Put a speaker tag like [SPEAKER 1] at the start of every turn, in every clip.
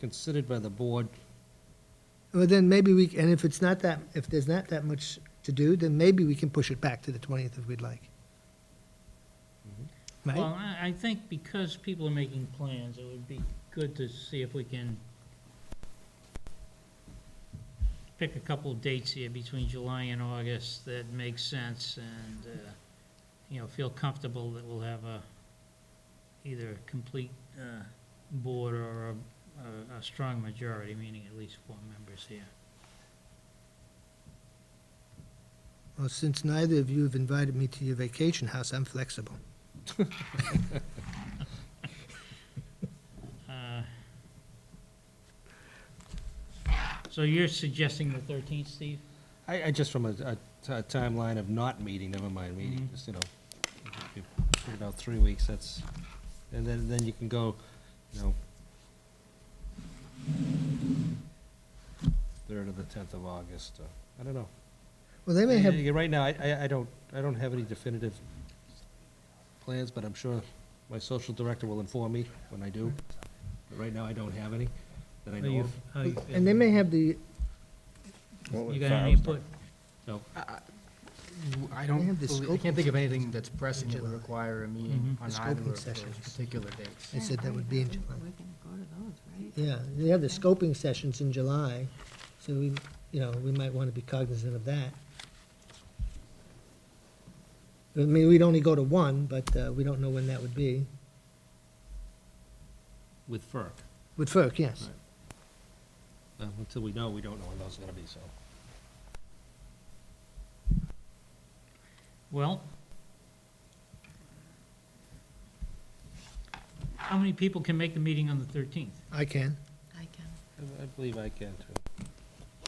[SPEAKER 1] considered by the board.
[SPEAKER 2] Well, then maybe we, and if it's not that, if there's not that much to do, then maybe we can push it back to the 20th if we'd like. Right?
[SPEAKER 3] Well, I, I think because people are making plans, it would be good to see if we can pick a couple of dates here between July and August that make sense and, uh, you know, feel comfortable that we'll have a, either a complete, uh, board or a, a, a strong majority, meaning at least four members here.
[SPEAKER 2] Well, since neither of you have invited me to your vacation house, I'm flexible.
[SPEAKER 3] Uh, So you're suggesting the thirteenth, Steve?
[SPEAKER 1] I, I just from a, a t- a timeline of not meeting, never mind meeting,
[SPEAKER 3] Mhm.
[SPEAKER 1] just, you know, if you put it out three weeks, that's, and then, then you can go, you know, third or the tenth of August, uh, I don't know.
[SPEAKER 2] Well, they may have,
[SPEAKER 1] Yeah, Right now, I, I, I don't, I don't have any definitive plans, but I'm sure my social director will inform me when I do. But right now, I don't have any that I know of.
[SPEAKER 2] and they may have the,
[SPEAKER 3] You got any input?
[SPEAKER 1] No,
[SPEAKER 4] I
[SPEAKER 2] They
[SPEAKER 4] don't,
[SPEAKER 2] have the
[SPEAKER 4] believe- I
[SPEAKER 2] scoping
[SPEAKER 4] can't think of anything that's pressing that would require a meeting
[SPEAKER 3] Mhm.
[SPEAKER 4] on
[SPEAKER 2] Mm-hmm. The
[SPEAKER 4] either
[SPEAKER 2] scoping
[SPEAKER 4] of those
[SPEAKER 2] sessions.
[SPEAKER 4] particular dates.
[SPEAKER 2] they said that would be in July.
[SPEAKER 5] We can go to those,
[SPEAKER 2] Yeah,
[SPEAKER 5] right?
[SPEAKER 2] they have the scoping sessions in July, so we, you know, we might want to be cognizant of that. I mean, we'd only go to one, but uh, we don't know when that would be.
[SPEAKER 1] with FERC.
[SPEAKER 2] With FERC, yes.
[SPEAKER 1] Uh, Until we know, we don't know when those are gonna be, so.
[SPEAKER 3] Well, how many people can make the meeting on the 13th?
[SPEAKER 2] I can.
[SPEAKER 5] I can.
[SPEAKER 1] I- I believe I can too.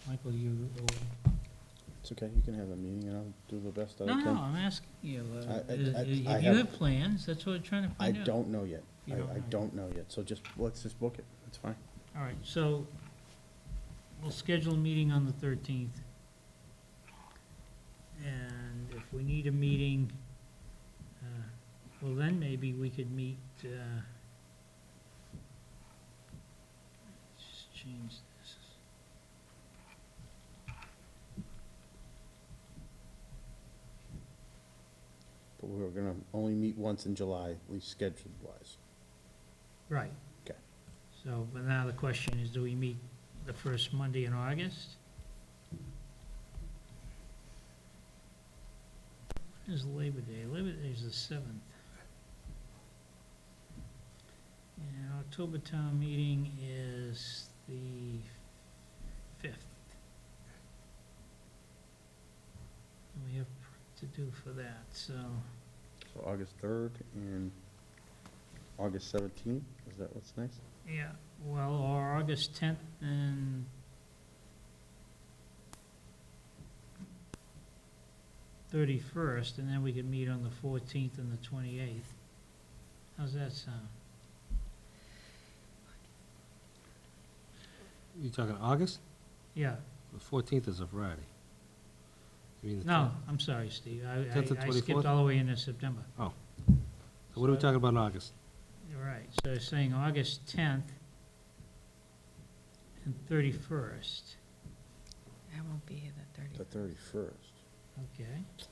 [SPEAKER 3] Michael, you,
[SPEAKER 6] It's okay, you can have a meeting and I'll do the best that
[SPEAKER 3] no,
[SPEAKER 6] I
[SPEAKER 3] no,
[SPEAKER 6] can.
[SPEAKER 3] I'm asking you, uh,
[SPEAKER 6] I- I-
[SPEAKER 3] is-
[SPEAKER 6] I-
[SPEAKER 3] is-
[SPEAKER 6] I
[SPEAKER 3] if you
[SPEAKER 6] have-
[SPEAKER 3] have plans, that's what I'm trying to
[SPEAKER 6] I
[SPEAKER 3] find out.
[SPEAKER 6] don't know yet.
[SPEAKER 3] You
[SPEAKER 6] I,
[SPEAKER 3] don't
[SPEAKER 6] I
[SPEAKER 3] know.
[SPEAKER 6] don't know yet, so just, let's just book it, that's fine.
[SPEAKER 3] All right, so we'll schedule a meeting on the 13th. And if we need a meeting, uh, well, then maybe we could meet, uh, let's change this.
[SPEAKER 6] But we're gonna only meet once in July, at least scheduled wise.
[SPEAKER 3] Right.
[SPEAKER 6] Okay.
[SPEAKER 3] So, but now the question is, do we meet the first Monday in August? When is Labor Day? Labor Day is the seventh. And October town meeting is the fifth. And we have prep to do for that, so,
[SPEAKER 6] So August third and August seventeenth, is that what's next?
[SPEAKER 3] yeah, well, or August tenth and thirty-first, and then we could meet on the fourteenth and the twenty-eighth. How's that sound?
[SPEAKER 1] You talking August?
[SPEAKER 3] Yeah,
[SPEAKER 1] The fourteenth is a Friday. You mean the
[SPEAKER 3] no,
[SPEAKER 1] 10th?
[SPEAKER 3] I'm sorry, Steve, I,
[SPEAKER 1] Tenth and
[SPEAKER 3] I- I
[SPEAKER 1] 24th?
[SPEAKER 3] skipped all the way into September.
[SPEAKER 1] So what are we talking about in August?
[SPEAKER 3] You're Right, so saying August tenth and thirty-first,
[SPEAKER 5] I won't be here the
[SPEAKER 6] The
[SPEAKER 5] thirtieth.
[SPEAKER 6] thirty-first.
[SPEAKER 3] okay?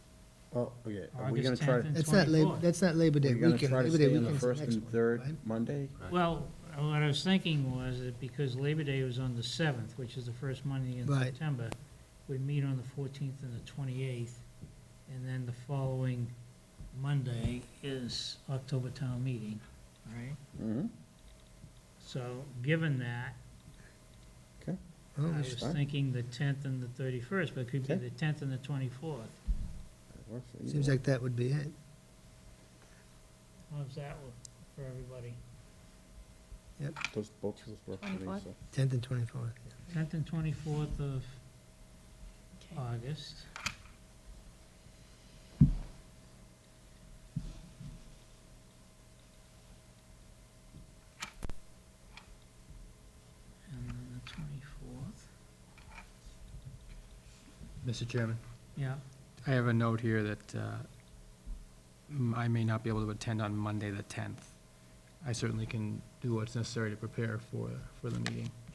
[SPEAKER 6] Oh, okay, are we gonna
[SPEAKER 3] August
[SPEAKER 6] try,
[SPEAKER 3] 10th
[SPEAKER 6] to-
[SPEAKER 3] and
[SPEAKER 2] That's not Labor,
[SPEAKER 3] 24th.
[SPEAKER 2] that's not Labor
[SPEAKER 6] are
[SPEAKER 2] Day
[SPEAKER 6] we gonna
[SPEAKER 2] weekend.
[SPEAKER 6] try to
[SPEAKER 2] Labor Day
[SPEAKER 6] stay on
[SPEAKER 2] weekend's
[SPEAKER 6] the first
[SPEAKER 2] next
[SPEAKER 6] and
[SPEAKER 2] one,
[SPEAKER 6] third
[SPEAKER 2] right?
[SPEAKER 6] Monday?
[SPEAKER 1] Right.
[SPEAKER 3] Well, what I was thinking was that because Labor Day was on the seventh, which is the first Monday in
[SPEAKER 2] Right.
[SPEAKER 3] September, we'd meet on the fourteenth and the twenty-eighth, and then the following Monday is October town meeting, right?
[SPEAKER 6] Mm-hmm,
[SPEAKER 3] So, given that, I
[SPEAKER 2] Oh,
[SPEAKER 3] was
[SPEAKER 6] fine.
[SPEAKER 3] thinking the tenth and the thirty-first, but it could be
[SPEAKER 6] Okay.
[SPEAKER 3] the tenth and the twenty-fourth.
[SPEAKER 6] that works for
[SPEAKER 2] Seems
[SPEAKER 6] either one.
[SPEAKER 2] like that would be it.
[SPEAKER 3] How's that work for everybody?
[SPEAKER 6] Those both of us work for me,
[SPEAKER 5] 24th?
[SPEAKER 6] so.
[SPEAKER 2] 10th and 24th.
[SPEAKER 3] Tenth and twenty-fourth of August. And then the twenty-fourth,
[SPEAKER 4] Mr. Chairman,
[SPEAKER 3] yeah,
[SPEAKER 4] I have a note here that uh, m- I may not be able to attend on Monday, the tenth. I certainly can do what's necessary to prepare for, for the meeting.